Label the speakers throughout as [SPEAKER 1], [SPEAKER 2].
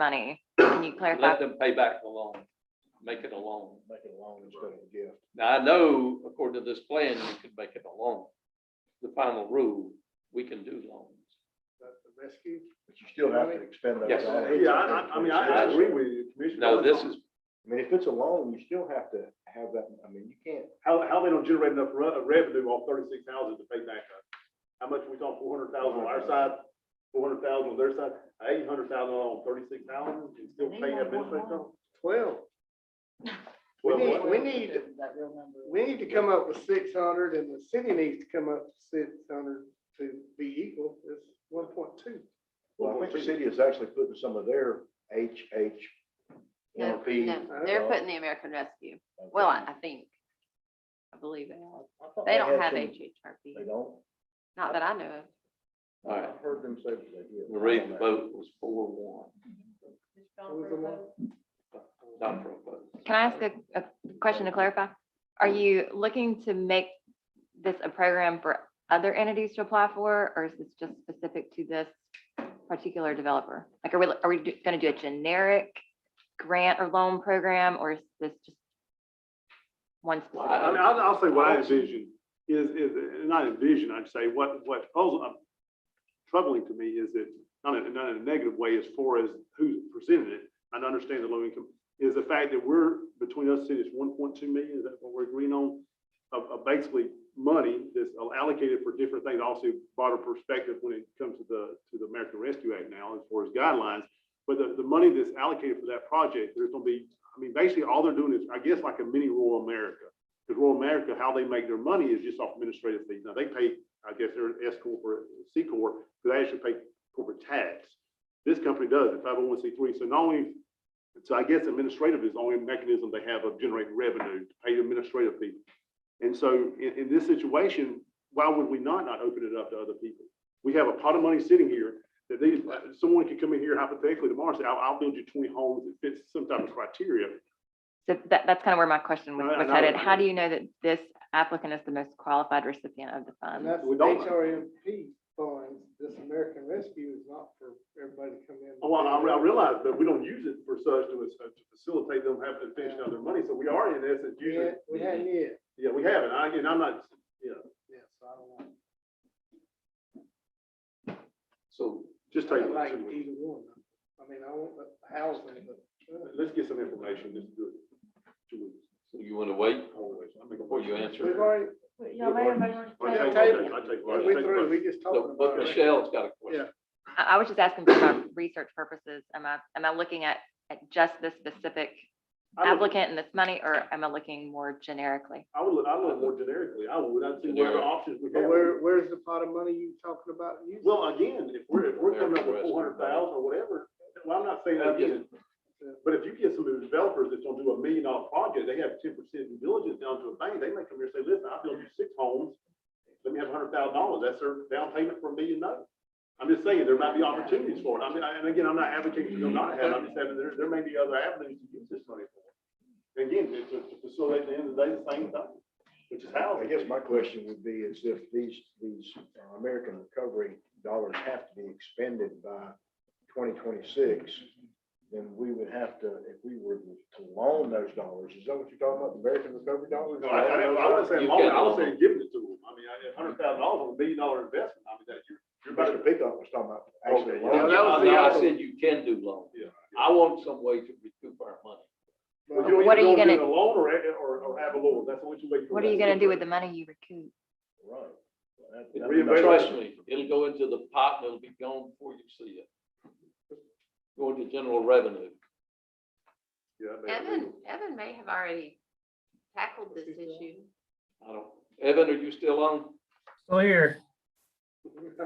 [SPEAKER 1] money. Can you clarify?
[SPEAKER 2] Let them pay back the loan, make it a loan.
[SPEAKER 3] Make it a loan instead of a gift.
[SPEAKER 2] Now, I know according to this plan, you could make it a loan. The final rule, we can do loans.
[SPEAKER 4] That's the rescue.
[SPEAKER 3] But you still have to expend that.
[SPEAKER 2] Yes.
[SPEAKER 3] value.
[SPEAKER 4] Yeah, I, I, I mean, I, I agree with you, Commissioner.
[SPEAKER 2] No, this is,
[SPEAKER 3] I mean, if it's a loan, you still have to have that, I mean, you can't,
[SPEAKER 4] How, how they don't generate enough re- revenue off thirty-six houses to pay back up? How much we talking, four hundred thousand on our side, four hundred thousand on their side, eight hundred thousand on thirty-six houses, and still
[SPEAKER 5] They want
[SPEAKER 4] pay
[SPEAKER 5] one
[SPEAKER 4] administrative
[SPEAKER 5] more.
[SPEAKER 4] costs?
[SPEAKER 6] Well, we
[SPEAKER 4] Well,
[SPEAKER 6] need,
[SPEAKER 4] what-
[SPEAKER 6] we need, we need to come up with six hundred and the city needs to come up with six hundred to be equal. It's one point two.
[SPEAKER 3] well, I think the city is actually putting some of their H, H, uh,
[SPEAKER 5] No,
[SPEAKER 3] NRP.
[SPEAKER 5] no, they're putting the American Rescue. Well, I, I think, I believe they are.
[SPEAKER 3] I thought
[SPEAKER 5] They don't have
[SPEAKER 3] had some- They
[SPEAKER 5] HHRP,
[SPEAKER 3] don't?
[SPEAKER 5] not that I know of.
[SPEAKER 2] all right,
[SPEAKER 3] I've heard them say that they do.
[SPEAKER 2] Marie, the vote was four one,
[SPEAKER 6] What was the one?
[SPEAKER 2] not pro vote.
[SPEAKER 1] Can I ask a, a question to clarify? Are you looking to make this a program for other entities to apply for, or is this just specific to this particular developer? Like, are we, are we do- gonna do a generic grant or loan program, or is this just one specific?
[SPEAKER 4] I mean, I'll, I'll say what I envision is, is, not envision, I'd say what, what puzzle, um, troubling to me is that, not in, not in a negative way as far as who's presented it, and I understand the low income, is the fact that we're, between us cities, one point two million, is that what we're agreeing on? Of, of basically money that's allocated for different things, also broader perspective when it comes to the, to the American Rescue Act now, as far as guidelines. But the, the money that's allocated for that project, there's gonna be, I mean, basically, all they're doing is, I guess, like a mini rural America. Because rural America, how they make their money is just off administrative fees. Now, they pay, I guess, their S corp or C corp, but they actually pay corporate tax. This company does, oh it, 501c3. So not only, so I guess administrative is the only mechanism they have of generating revenue, to pay administrative fees. And so in, in this situation, why would we not, not open it up to other people? We have a pot of money sitting here that these, someone could come in here hypothetically tomorrow and say, I'll, I'll build you twenty homes that fits some type of criteria.
[SPEAKER 1] So that, that's kind of where my question was
[SPEAKER 4] No, no,
[SPEAKER 1] was
[SPEAKER 4] no.
[SPEAKER 1] headed. How do you know that this applicant is the most qualified recipient of the
[SPEAKER 6] And
[SPEAKER 1] funds?
[SPEAKER 6] that's
[SPEAKER 4] We don't-
[SPEAKER 6] HRMP funds. This American Rescue is not for everybody to come in.
[SPEAKER 4] Oh, Well, I, re- I realize, but we don't use it for such to, uh, to facilitate them having to finish out their money, so we are in essence
[SPEAKER 6] We
[SPEAKER 4] using,
[SPEAKER 6] had- We hadn't yet.
[SPEAKER 4] yeah, we haven't, I, and I'm not, you know,
[SPEAKER 6] Yes, I don't like.
[SPEAKER 2] So
[SPEAKER 4] just
[SPEAKER 6] I
[SPEAKER 4] take.
[SPEAKER 6] don't like
[SPEAKER 4] two weeks.
[SPEAKER 6] either one. I mean, I want the housing, but.
[SPEAKER 4] Let's get some information, just do it. Two weeks.
[SPEAKER 2] so you want to wait
[SPEAKER 4] Always. I make a
[SPEAKER 2] before
[SPEAKER 4] point.
[SPEAKER 2] you
[SPEAKER 6] We've
[SPEAKER 2] answer?
[SPEAKER 6] already,
[SPEAKER 4] Yeah, but everybody
[SPEAKER 6] on
[SPEAKER 4] I
[SPEAKER 6] the
[SPEAKER 4] take-
[SPEAKER 6] table.
[SPEAKER 4] I take- I
[SPEAKER 6] we
[SPEAKER 4] take-
[SPEAKER 6] through, we just talking
[SPEAKER 2] So,
[SPEAKER 6] about.
[SPEAKER 2] But
[SPEAKER 6] it.
[SPEAKER 2] Michelle's got a question.
[SPEAKER 1] I, I was just asking for my research purposes. Am I, am I looking at, at just this specific
[SPEAKER 4] I would-
[SPEAKER 1] applicant and this money, or am I looking more generically?
[SPEAKER 4] I would, look- I would look more generically, I would, I'd see what
[SPEAKER 2] Generic.
[SPEAKER 4] other options we
[SPEAKER 6] But
[SPEAKER 4] have.
[SPEAKER 6] where, where's the pot of money you talking about using?
[SPEAKER 4] Well, again, if we're, if we're coming up with
[SPEAKER 2] American
[SPEAKER 4] four hundred thousand or whatever, well, I'm not saying that again. But if you get some of the developers that's gonna do a million dollar project, they have ten percent due diligence down to a bank, they may come here and say, listen, I built you six homes. Let me have a hundred thousand dollars, that's their down payment for a million note. I'm just saying, there might be opportunities for it. I mean, I- and again, I'm not advocating for them not to have, it. I'm just having, there, there may be other avenues to use this money for. Again, to, to to facilitate at the end of the day, the same thing, which is how.
[SPEAKER 3] I guess my question would be is if these, these uh, American recovery dollars have to be expended by twenty twenty-six, then we would have to, if we were to loan those dollars, is that what you're talking about, the American recovery dollars?
[SPEAKER 4] No, I, I, I wasn't saying
[SPEAKER 2] You've
[SPEAKER 4] loan, I
[SPEAKER 2] got
[SPEAKER 4] was
[SPEAKER 2] loan.
[SPEAKER 4] saying giving it to them. I mean, I, a hundred thousand dollars on a million dollar investment, I mean, that you're, you're about
[SPEAKER 3] Mr.
[SPEAKER 4] to
[SPEAKER 3] Pickup was talking about actually.
[SPEAKER 4] Okay, yeah,
[SPEAKER 3] loaning.
[SPEAKER 6] that was the
[SPEAKER 2] I
[SPEAKER 6] other-
[SPEAKER 2] said you can do loans.
[SPEAKER 4] Yeah.
[SPEAKER 2] I want some way to recoup our money.
[SPEAKER 4] Well,
[SPEAKER 6] But-
[SPEAKER 4] you
[SPEAKER 1] What
[SPEAKER 4] either
[SPEAKER 1] are you
[SPEAKER 4] go and do
[SPEAKER 1] gonna-
[SPEAKER 4] it Alone or, or, or have a loan, that's what you wait for.
[SPEAKER 1] What are you gonna do with the money you recoup?
[SPEAKER 3] Right. That-
[SPEAKER 2] It-
[SPEAKER 3] that-
[SPEAKER 4] Reinvest-
[SPEAKER 2] Trust me, it'll go into the pot and it'll be gone before you see it. Go into general revenue.
[SPEAKER 4] Yeah, I mean,
[SPEAKER 5] Evan, Evan may have already tackled this issue.
[SPEAKER 2] I don't, Evan, are you still on?
[SPEAKER 7] Still here.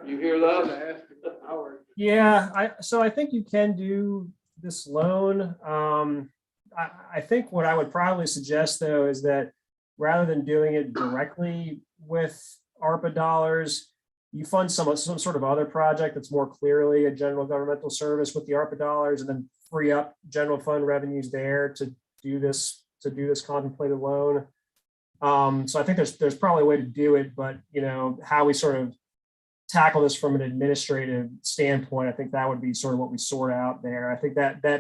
[SPEAKER 2] You hear those?
[SPEAKER 6] Should've asked him an hour ago.
[SPEAKER 7] Yeah, I, so I think you can do this loan. Um, I, I think what I would probably suggest though is that rather than doing it directly with ARPA dollars, you fund some, some sort of other project that's more clearly a general governmental service with the ARPA dollars and then free up general fund revenues there to do this, to do this contemplated loan. Um, so I think there's, there's probably a way to do it, but you know, how we sort of tackle this from an administrative standpoint, I think that would be sort of what we sort out there. I think that, that